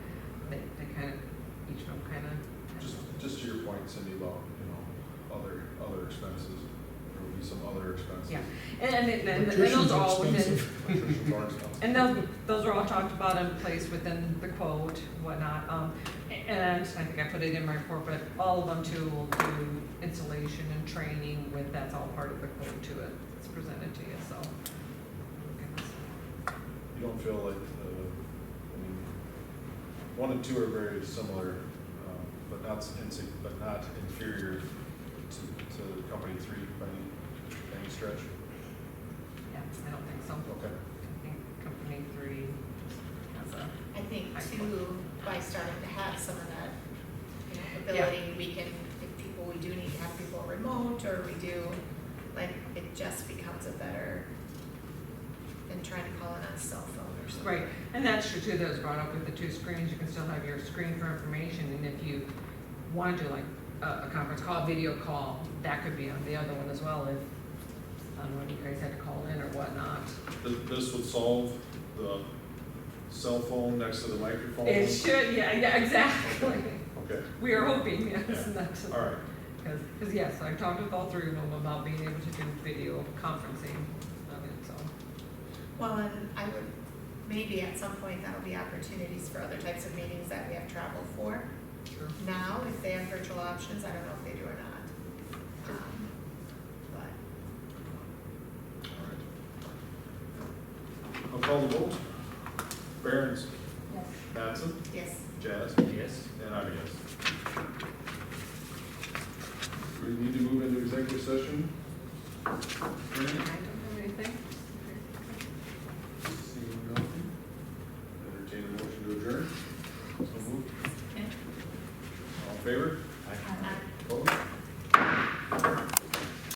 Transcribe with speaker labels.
Speaker 1: kind of, each of them kind of?
Speaker 2: Just, just to your point, Cindy, about, you know, other, other expenses, there will be some other expenses.
Speaker 1: Yeah. And, and it- and, and
Speaker 3: Electricians
Speaker 1: those
Speaker 3: are
Speaker 1: are all within,
Speaker 3: expensive.
Speaker 2: Electricians are expensive.
Speaker 1: and those, those are all talked about and placed within the quote, whatnot, um, a- and I think I put it in my report, but all of them too will do installation and training with, that's all part of the quote to it, it's presented to you, so.
Speaker 2: You don't feel like, uh, I mean, one and two are very similar, um, but not insig, but not inferior to, to company three by any, any stretch?
Speaker 1: Yeah, I don't think so,
Speaker 2: Okay.
Speaker 1: I think company three has a.
Speaker 4: I think too, by starting to have some of that, you know, ability, we can, if people, we do need to have people remote, or we do, like, it just becomes a better than trying to call in on a cell phone or something.
Speaker 1: Right, and that's true too, that was brought up with the two screens, you can still have your screen for information, and if you want to do like a, a conference call, video call, that could be on the other one as well, if, I don't know, if you guys had to call in or whatnot.
Speaker 2: This, this would solve the cell phone next to the microphone?
Speaker 1: It should, yeah, yeah, exactly,
Speaker 2: Okay,
Speaker 1: we are hoping, yes,
Speaker 2: Yeah.
Speaker 1: that's,
Speaker 2: all right.
Speaker 1: because, because yes, I've talked with all three of them about being able to do video conferencing of it, so.
Speaker 4: Well, and I would, maybe at some point, that'll be opportunities for other types of meetings that we have travel for.
Speaker 1: Sure.
Speaker 4: Now, if they have virtual options, I don't know if they do or not. Um, But,
Speaker 2: All right. I'll call the vote. Barons,
Speaker 1: Yes.
Speaker 2: Mattson,
Speaker 4: yes,
Speaker 2: Jazz,
Speaker 3: Yes.
Speaker 2: and I'm a yes. We need to move into executive session.
Speaker 1: I
Speaker 2: Randy?
Speaker 1: don't have anything.
Speaker 2: Seeing nothing. Entertain a motion to adjourn. So moved.
Speaker 4: Okay.
Speaker 2: All in favor?
Speaker 4: Uh,
Speaker 2: Opposed?